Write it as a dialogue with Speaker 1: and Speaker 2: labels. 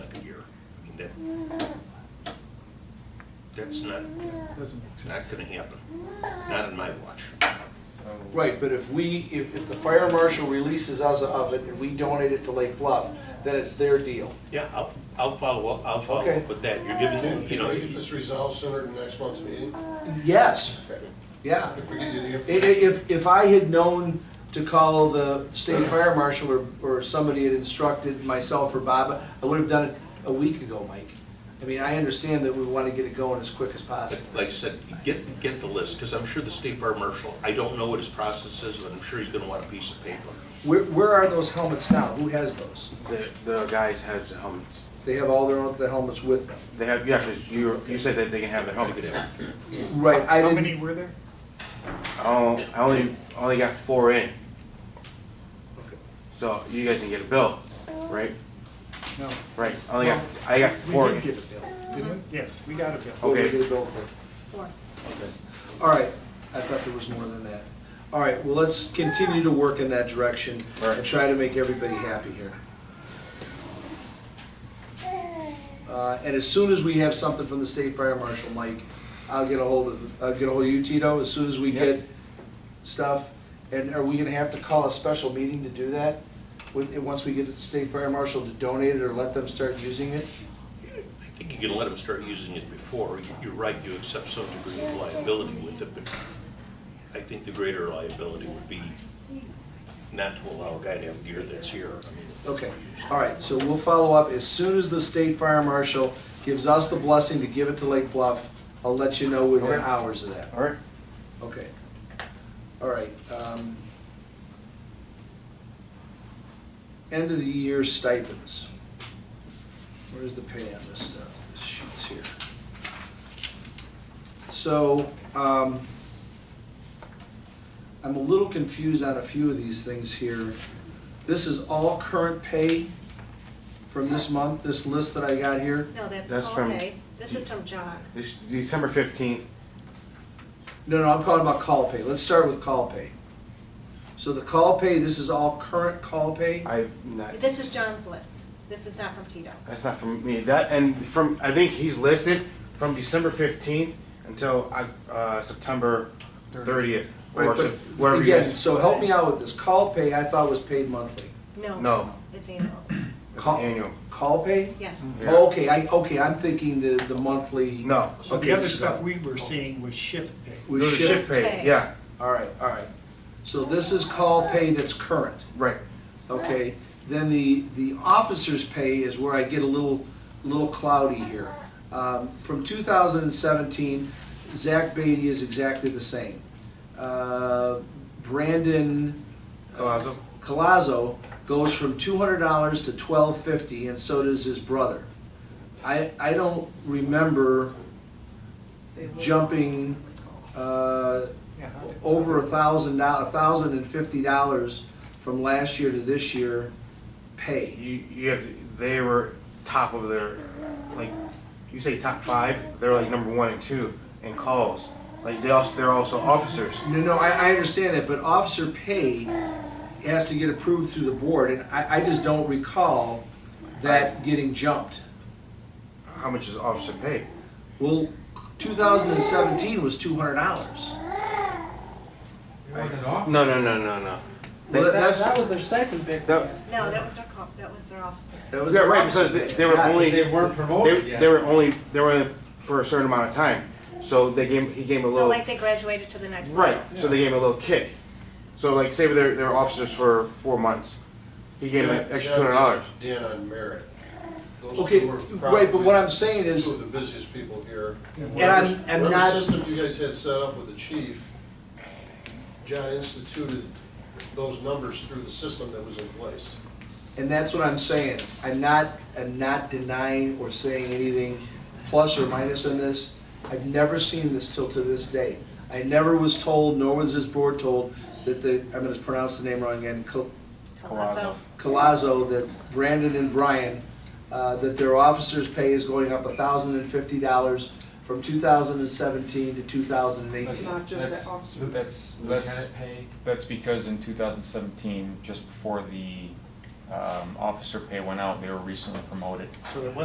Speaker 1: that, that's not,
Speaker 2: Doesn't make
Speaker 1: it's
Speaker 2: sense.
Speaker 1: not gonna happen, not in my watch.
Speaker 3: Right, but if we, if, if the fire marshal releases us of it and we donate it to Lake Bluff, then it's their deal.
Speaker 1: Yeah, I'll, I'll follow up, I'll follow
Speaker 3: Okay.
Speaker 1: up with that, you're giving, you
Speaker 4: Can
Speaker 1: know,
Speaker 4: I get this resolved sooner than next month's meeting?
Speaker 3: Yes,
Speaker 4: Okay.
Speaker 3: yeah.
Speaker 4: If we get you the
Speaker 3: I- i-
Speaker 4: information.
Speaker 3: If, if I had known to call the state fire marshal or, or somebody had instructed myself or Bob, I would have done it a week ago, Mike. I mean, I understand that we want to get it going as quick as possible.
Speaker 1: like I said, get, get the list, because I'm sure the state fire marshal, I don't know what his process is, but I'm sure he's gonna want a piece of paper.
Speaker 3: Where, where are those helmets now? Who has those?
Speaker 5: The, the guys have the helmets.
Speaker 3: They have all their, own- the helmets with them.
Speaker 5: They have, yeah, because you, you said that they can have the helmets.
Speaker 3: Right, I
Speaker 2: How
Speaker 3: didn't.
Speaker 2: many were there?
Speaker 5: Oh, I only, I only got four in, so you guys can get a bill, right?
Speaker 2: No.
Speaker 5: Right, I only got, I got four
Speaker 2: We did
Speaker 5: in.
Speaker 2: get a bill, didn't we? Yes, we got a bill.
Speaker 3: What did
Speaker 5: Okay.
Speaker 3: Oh, we get a bill for?
Speaker 6: Four.
Speaker 3: All right, I thought there was more than that. All right, well, let's continue to work in that direction and
Speaker 5: Right.
Speaker 3: try to make everybody happy here. Uh, and as soon as we have something from the state fire marshal, Mike, I'll get a hold of, I'll get a hold of you, Tito, as soon as we
Speaker 5: Yep.
Speaker 3: get stuff. And are we gonna have to call a special meeting to do that? With, once we get the state fire marshal to donate it or let them start using it?
Speaker 1: I think you can let him start using it before, you're right, you accept some degree of liability with it, but I think the greater liability would be not to allow a guy to have gear that's here, I mean.
Speaker 3: Okay, all right, so we'll follow up as soon as the state fire marshal gives us the blessing to give it to Lake Bluff. I'll let you know within
Speaker 5: Okay.
Speaker 3: hours of that.
Speaker 5: All right,
Speaker 3: Okay. All right. um, End of the year stipends. Where's the pay on this stuff? This sheet's here. So, um, I'm a little confused on a few of these things here. This is all current pay from this month, this list that I got here?
Speaker 6: No, that's
Speaker 5: That's from-
Speaker 6: okay. This is from John.
Speaker 5: this, December fifteenth,
Speaker 3: No, no, I'm talking about call pay. Let's start with call pay. So the call pay, this is all current call pay?
Speaker 5: I, not,
Speaker 6: This is John's list. This is not from Tito.
Speaker 5: that's not from me, that, and from, I think he's listed from December fifteenth until, uh, September thirtieth. Or
Speaker 3: Right, but
Speaker 5: Sep- wherever you
Speaker 3: Again,
Speaker 5: guys,
Speaker 3: so help me out with this. Call pay, I thought was paid monthly.
Speaker 6: No.
Speaker 5: No.
Speaker 6: It's annual.
Speaker 3: Call,
Speaker 5: annual,
Speaker 3: call pay?
Speaker 6: Yes.
Speaker 5: Yeah.
Speaker 3: Okay, I, okay, I'm thinking the, the monthly.
Speaker 5: no.
Speaker 2: So
Speaker 3: Okay,
Speaker 2: the other
Speaker 3: so-
Speaker 2: stuff we were seeing was shift pay.
Speaker 3: We
Speaker 5: It was
Speaker 3: shift.
Speaker 5: pay,
Speaker 6: pay.
Speaker 5: yeah,
Speaker 3: All right, all right. So this is call pay that's current,
Speaker 5: right,
Speaker 3: okay? Then the, the officer's pay is where I get a little, little cloudy here. Um, from two thousand and seventeen, Zach Beatty is exactly the same. Uh, Brandon. uh,
Speaker 5: Colazo.
Speaker 3: Colazo goes from two hundred dollars to twelve fifty, and so does his brother. I, I don't remember jumping, uh,
Speaker 2: Yeah, how did-
Speaker 3: over a thousand dollars, a thousand and fifty dollars from last year to this year pay.
Speaker 5: You, you have, they were top of their, like, you say top five, they're like number one and two in calls. Like, they also, they're also officers.
Speaker 3: No, no, I, I understand that, but officer pay has to get approved through the board, and I, I just don't recall that getting jumped.
Speaker 5: How much is officer pay?
Speaker 3: Well, two thousand and seventeen was two hundred dollars.
Speaker 5: No, no, no, no, no. They-
Speaker 3: Well, that's-
Speaker 7: That was their stipend pick.
Speaker 5: that-
Speaker 6: No, that was their call, that was their officer.
Speaker 3: That was
Speaker 5: yeah, right,
Speaker 3: officer
Speaker 5: because they,
Speaker 3: pay.
Speaker 5: they were
Speaker 3: Yeah,
Speaker 5: only.
Speaker 7: they weren't promoted
Speaker 5: they-
Speaker 7: yet.
Speaker 5: They were only, they were only for a certain amount of time. So they gave, he gave a
Speaker 6: So
Speaker 5: little,
Speaker 6: like they graduated to the next
Speaker 5: right,
Speaker 6: level.
Speaker 5: so they gave him a little kick. So like, say they're, they're officers for four months. He gave him an extra two hundred dollars.
Speaker 4: Dan on merit. Those
Speaker 3: Okay,
Speaker 4: two were
Speaker 3: right, but what I'm saying
Speaker 4: probably
Speaker 3: is,
Speaker 4: Two of the busiest people here.
Speaker 3: and I'm, I'm
Speaker 4: Whatever
Speaker 3: not.
Speaker 4: system you guys had set up with the chief, John instituted those numbers through the system that was in place.
Speaker 3: And that's what I'm saying. I'm not, I'm not denying or saying anything plus or minus on this. I've never seen this till to this day. I never was told, nor was this board told, that the, I'm gonna pronounce the name wrong again, Col-
Speaker 6: Colasso.
Speaker 3: Colazo, that Brandon and Brian, uh, that their officers' pay is going up thousand and fifty dollars from two thousand and seventeen to two thousand and
Speaker 8: That's-
Speaker 3: eighteen.
Speaker 7: Not just
Speaker 8: that's-
Speaker 7: that officer.
Speaker 8: That's, that's,
Speaker 7: Lieutenant pay.
Speaker 8: that's because in two thousand seventeen, just before the, um, officer pay went out, they were recently promoted.
Speaker 1: So there